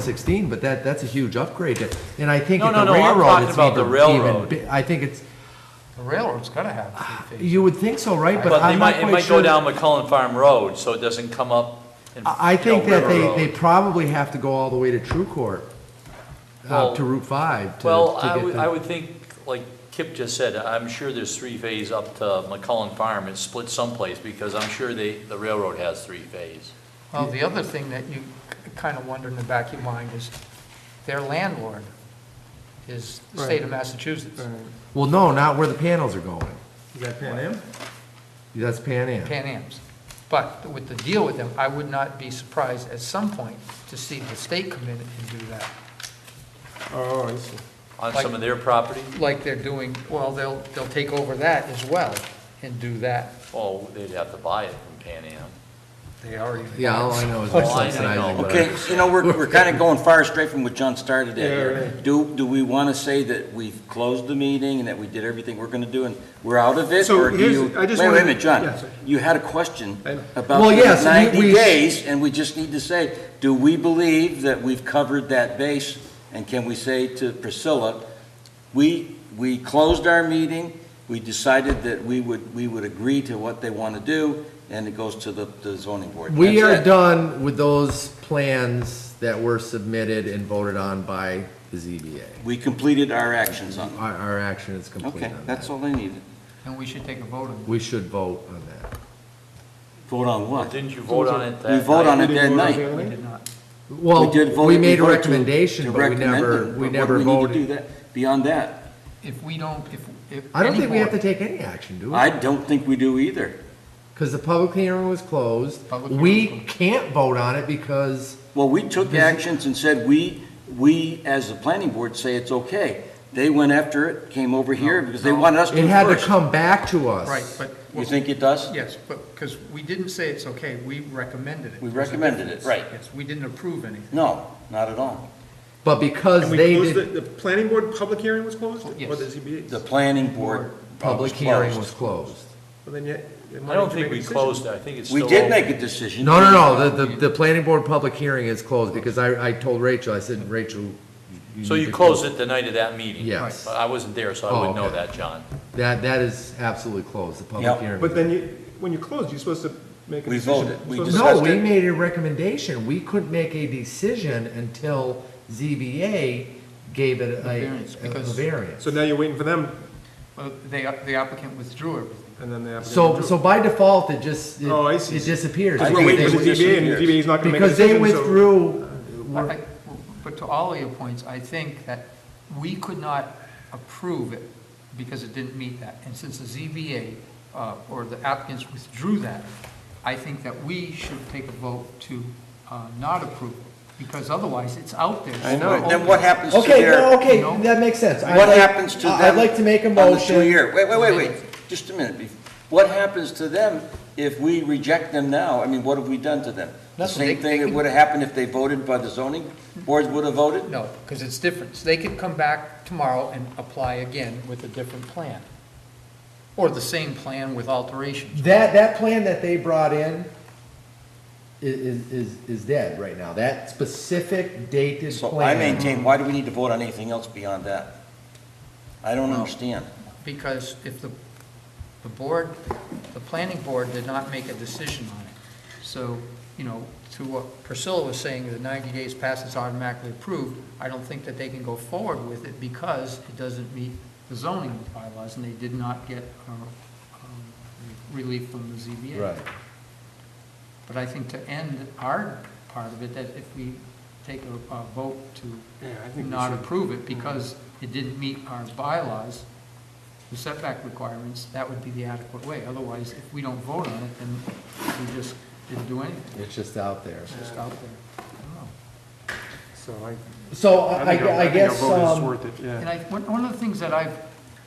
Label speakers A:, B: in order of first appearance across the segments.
A: 116, but that, that's a huge upgrade. And I think
B: No,
A: at the
B: no, no, I'm
A: railroad,
B: talking
A: it's
B: about the
A: even, even,
B: railroad.
A: bi- I think it's,
C: The railroad's gotta have three feet.
A: Ah, you would think so, right? But
B: But they
A: I'm not
B: might, it
A: quite
B: might go
A: sure.
B: down McCullen Farm Road, so it doesn't come up. in,
A: I I
B: you know,
A: think that
B: River Road.
A: they, they probably have to go all the way to True Court, uh,
B: Well-
A: to Route 5 to,
B: Well,
A: to
B: I
A: get
B: would, I
A: the.
B: would think, like Kip just said, I'm sure there's three-phase up to McCullen Farm, it's split someplace, because I'm sure they, the railroad has three-phase.
C: Well, the other thing that you kind of wonder in the back of your mind is their landlord is the state of Massachusetts,
A: Well, no, not where the panels are going.
D: You got Pan Am?
A: That's Pan Am.
C: Pan Am's. But with the deal with them, I would not be surprised at some point to see the state come in and do that,
D: Oh, I see.
B: On
C: Like-
B: some of their property,
C: like they're doing, well, they'll, they'll take over that as well and do that.
B: oh, they'd have to buy it from Pan Am.
C: They already.
A: Yeah, all I know is
B: Well,
A: they're
B: Oh, I- I
A: subsidizing.
B: know.
A: but I-
E: Okay, you know, we're, we're kind of going far straight from what John started at
D: Yeah,
E: here.
D: right.
E: Do, do we want to say that we've closed the meeting and that we did everything we're going to do and we're out of it?
D: So
E: or do
D: here's-
E: you-
D: I just
E: Wait,
D: wanna-
E: wait a minute,
D: yeah,
E: John,
D: sorry.
E: you had a question
D: I know.
E: about
A: Well,
E: the
A: yes, we- we-
E: ninety days, and we just need to say, do we believe that we've covered that base? And can we say to Priscilla, we, we closed our meeting, we decided that we would, we would agree to what they want to do, and it goes to the, the zoning board.
A: We
E: That's
A: are
E: it.
A: done with those plans that were submitted and voted on by the ZBA.
E: We completed our actions on it.
A: Our, our action is complete
E: Okay,
A: on
E: that's
A: that.
E: all I needed.
C: And we should take a vote on
A: We should vote on that.
E: Vote on what?
B: Didn't you vote on it that
E: We vote on
B: night?
E: it
D: Did you
E: that
D: vote on
E: night.
D: Pan
C: it.
D: Am?
C: We did not.
A: Well,
E: did vote-
A: we made a
E: voted to-
A: recommendation,
E: to
A: but we
E: recommend
A: never,
E: it, but
A: we
E: what
A: never
E: do we need to do
A: voted.
E: that- Beyond that,
C: If we don't, if, if.
A: I don't
C: any
A: think we have to
C: board-
A: take any action, do
E: I
A: we?
E: don't think we do either.
A: Because the public hearing was closed.
C: Public hearing was
A: We
C: closed.
A: can't vote on it because,
E: Well, we took
A: Busy.
E: actions and said, we, we, as the planning board, say it's okay. They went after it, came over here, because they
C: no.
E: wanted us to
A: it had to
E: first.
A: come back to us.
C: Right, but.
E: You think it does?
C: Yes, but, because we didn't say it's okay, we recommended it.
E: We recommended it, right.
C: Yes, we didn't approve anything.
E: No, not at all.
A: But because
D: And we
A: they
D: closed, the,
A: did,
D: the planning board public hearing was closed?
C: Yes.
D: Or the ZBA?
E: The planning board. uh,
A: public hearing was
E: closed.
A: closed.
D: Well, then yet, then why
B: I don't
D: did you
B: think
D: make a
B: we
D: decision?
B: closed it, I think it's still.
E: We did
B: open.
E: make a decision.
A: No, no, no, the, the, the planning board public hearing is closed because I, I told Rachel, I said, Rachel.
B: So
A: need
B: you
A: to
B: closed it the night of that meeting?
A: Yes.
B: But I wasn't there, so
A: Oh,
B: I wouldn't know
A: okay.
B: that, John.
A: That, that is absolutely closed, the public
E: Yep.
A: hearing.
D: But then you, when you closed, you're supposed to make a
E: We
D: decision.
E: voted. We
D: You're supposed to
A: No,
D: discuss
A: we
D: it.
A: made a recommendation. We couldn't make a decision until ZBA gave it a,
C: variance,
A: a- a
C: because-
A: variance.
D: So now you're waiting for them,
C: Well, they, the applicant withdrew everything.
D: and then they have to.
A: So, so by default, it just, it
D: Oh, I see.
A: it disappears.
E: I
D: Because we're
E: think
D: waiting
E: they
D: for the
E: were
D: ZBA, and the
E: disappears.
D: ZBA is not gonna make a
A: Because
D: decision,
A: they
D: so-
A: withdrew,
C: But
A: we're-
C: I- But to all of your points, I think that we could not approve it because it didn't meet that. And since the ZBA uh, or the applicants withdrew that, I think that we should take a vote to uh, not approve it, because otherwise it's out there.
A: I know.
E: Then what happens to
A: okay,
E: their?
A: no, okay,
C: No.
A: that makes sense. I'd
E: What
A: like-
E: happens to them?
A: I'd like to make a
E: on the two
A: motion.
E: year? Wait, wait, wait, wait, just a minute. What happens to them if we reject them now? I mean, what have we done to them? The
C: Nothing.
E: same
C: They-
E: thing
C: they
E: that
C: can-
E: would have happened if they voted by the zoning boards would have voted?
C: No, because it's different. So They could come back tomorrow and apply again with a different plan, or the same plan with alterations.
A: That, that plan that they brought in i- is, is, is dead right now. That specific dated
E: So I
A: plan.
E: maintain, why do we need to vote on anything else beyond that? I don't understand.
C: Because if the, the board, the planning board did not make a decision on it. So, you know, to what Priscilla was saying, the 90 days pass, it's automatically approved. I don't think that they can go forward with it because it doesn't meet the zoning bylaws, and they did not get uh, um, relief from the ZBA.
A: Right.
C: But I think to end our part of it, that if we take a, a vote to
D: Yeah, I think we
C: not
D: should. Mm-hmm.
C: approve it because it didn't meet our bylaws, the setback requirements, that would be the adequate way. Otherwise, if we don't vote on it, then we just didn't do anything.
A: It's just out there.
C: It's just out there. I don't know.
D: So I,
A: So
D: I
A: I,
D: think our-
A: I
D: I think our
A: guess,
D: vote is
A: um,
D: worth it,
C: And
D: yeah.
C: I, one, one of the things that I've,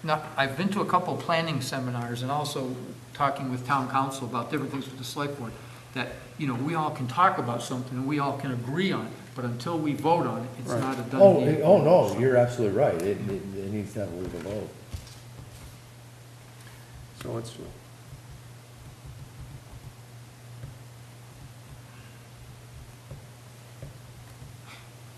C: not, I've been to a couple planning seminars and also talking with town council about different things with the select board, that, you know, we all can talk about something and we all can agree on it, but until we vote on it, it's
D: Right.
C: not a done
A: Oh,
C: deal.
A: it- oh, no, you're absolutely right. It, it, it needs to have a legal vote.
D: So let's,